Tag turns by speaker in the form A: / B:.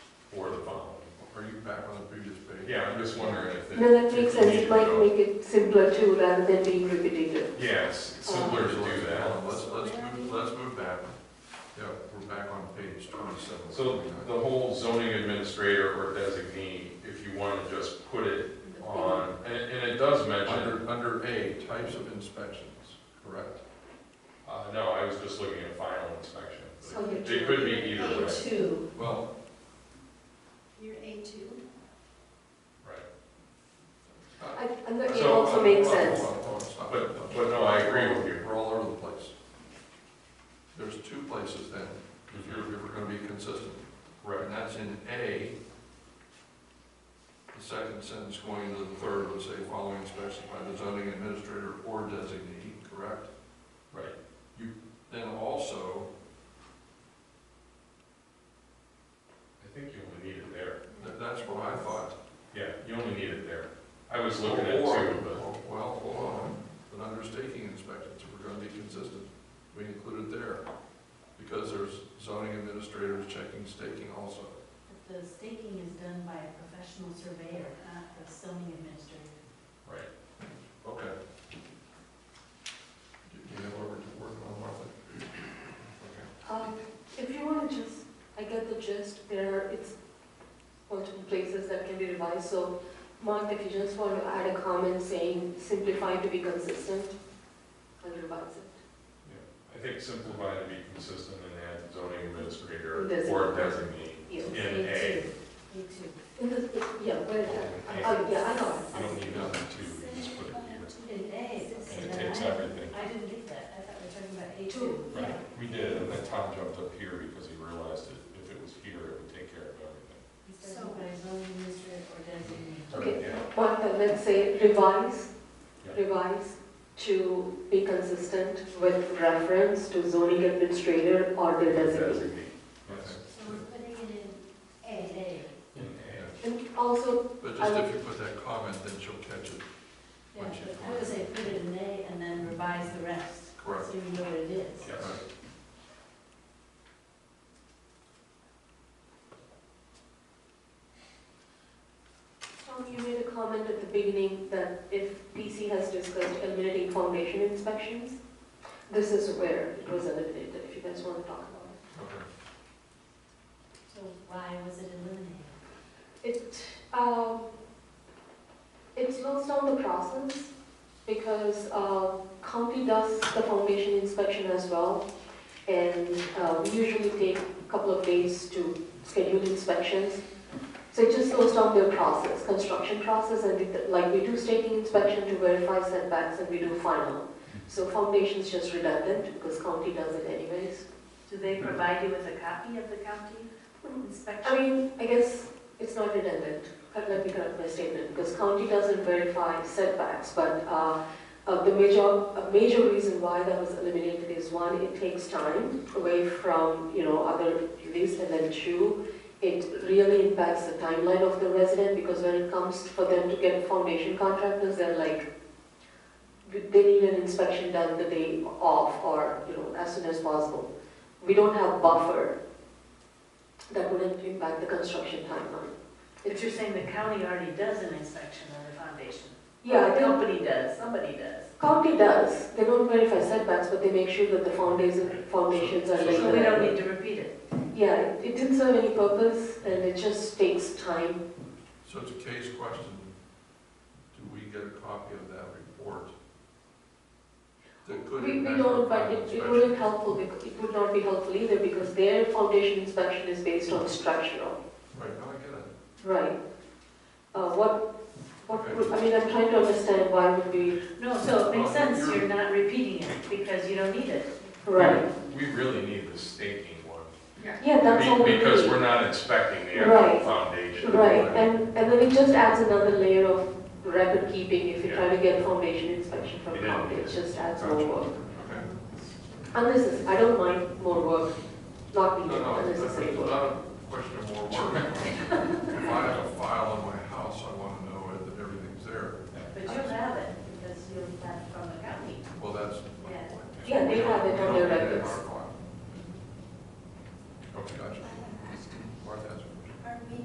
A: Are you back on the previous page?
B: Yeah, I'm just wondering if. it-
C: No, that
B: if
C: makes
B: we
C: sense,
B: need
C: it
B: to
C: might
B: go-
C: make it simpler too, rather than being repetitive.
B: Yeah, it's it's simpler to do that.
A: Let's, let's move, let's move back. Yeah, we're back on page twenty-seven.
B: So the whole zoning administrator or designee, if you want to just put it on, and, and it does mention,
A: Under, under A, types of inspections, correct?
B: uh, no, I was just looking at final inspection.
D: So you're
B: It could be either way.
D: A two,
A: Well,
D: you're A two,
B: Right.
C: I, I thought it
B: So,
C: also
B: uh,
C: makes
B: well,
C: sense.
A: Hold on, hold on, stop.
B: But- but no, I agree with you.
A: We're all over the place. There's two places then, if you're, if we're gonna be consistent.
B: Right.
A: And that's in A, the second sentence going into the third would say, following inspection by the zoning administrator or designee, correct?
B: Right.
A: Then also,
B: I think you only need it there.
A: th- that's what I thought.
B: Yeah, you only need it there. I was looking at
A: Or-
B: two, but,
A: Well, hold on, but under staking inspections, if we're gonna be consistent, we include it there. Because there's zoning administrators checking staking also.
D: but the staking is done by a professional surveyor, not the zoning administrator.
B: right.
A: Okay. Do do you know where we're working on, Martha? Okay.
B: uh,
C: Um, If you want to just, I get the gist, there are, it's multiple places that can be revised, so Mark, if you just want to add a comment saying simplify to be consistent, I'll revise it.
B: I think simplify to be consistent and add zoning administrator or
C: Designee.
B: designee.
C: Yes.
B: In A.
D: A two.
C: In the, yeah, where is that?
B: In A.
C: Oh, yeah, I know.
B: You don't need another two, you just put it here.
D: In A, okay,
B: And it
D: then
B: takes
D: I,
B: everything.
D: I didn't get that, I thought we were talking about A
C: Two.
D: two.
B: Right, we did, and then Tom jumped up here because he realized that if it was here, it would take care of everything.
D: He's done by zoning administrator or designee.
C: Okay.
B: Yeah,
C: Mark, then let's say revise,
B: Yeah.
C: revise to be consistent with reference to zoning administrator or the designee.
B: Yes.
D: So we're putting it in A.
B: In A.
C: And also,
A: But
C: I
A: just if you put that comment, then she'll catch it.
D: Yeah, but I would say put it in A and then revise the rest,
A: Correct.
D: so you know what it is.
B: Yes.
C: Tom, you made a comment at the beginning that if PC has discussed eliminating foundation inspections, this is where it was eliminated, if you guys want to talk about
A: Okay.
D: So why was it eliminated?
C: it. It, um, it slows down the process because uh, county does the foundation inspection as well. And uh, we usually take a couple of days to schedule inspections. So it just slows down their process, construction process, and it- like we do staking inspection to verify setbacks and we do final. So foundation's just redundant because county does it anyways.
D: Do they provide you with a copy of the county inspection?
C: I mean, I guess it's not redundant, Uh, let me correct my statement, because county doesn't verify setbacks, but uh, uh, the major, a major reason why that was eliminated is one, it takes time away from, you know, other duties, and then two, it really impacts the timeline of the resident, because when it comes for them to get foundation contractors, they're like, they need an inspection done the day off, or, you know, as soon as possible. We don't have buffer that wouldn't impact the construction timeline.
E: But you're saying the county already does an inspection on the foundation?
C: Yeah,
E: The
C: the
E: company does, somebody does.
C: county does, they don't verify setbacks, but they make sure that the foundations, foundations are laid.
E: So we don't need to repeat it.
C: Yeah, it it didn't serve any purpose, and it just takes time.
A: So it's a case question. Do we get a copy of that report? That could
C: We, we
A: impact
C: don't,
A: our
C: but
A: final
C: it, it
A: inspection?
C: wouldn't helpful, bec- it would not be helpful either, because their foundation inspection is based on structural,
A: Right, no, I get it.
C: right? Uh, what, what, would- I mean, I'm trying to understand why would be,
E: No, so it makes sense you're not repeating it because you don't need it.
C: right?
B: We really need the staking one.
C: Yeah, that's all we
B: Be-
C: need.
B: Because we're not inspecting the actual
C: Right.
B: foundation.
C: Right, and, and then it just adds another layer of record keeping if you
B: Yeah.
C: try to get foundation inspection from
B: Yeah.
C: county, it just adds
B: Gotcha.
C: more work.
A: Okay.
C: And this is, I don't mind more work, not
A: No,
C: me,
A: no,
C: unnecessary
A: it's
C: work.
A: not a question of more work.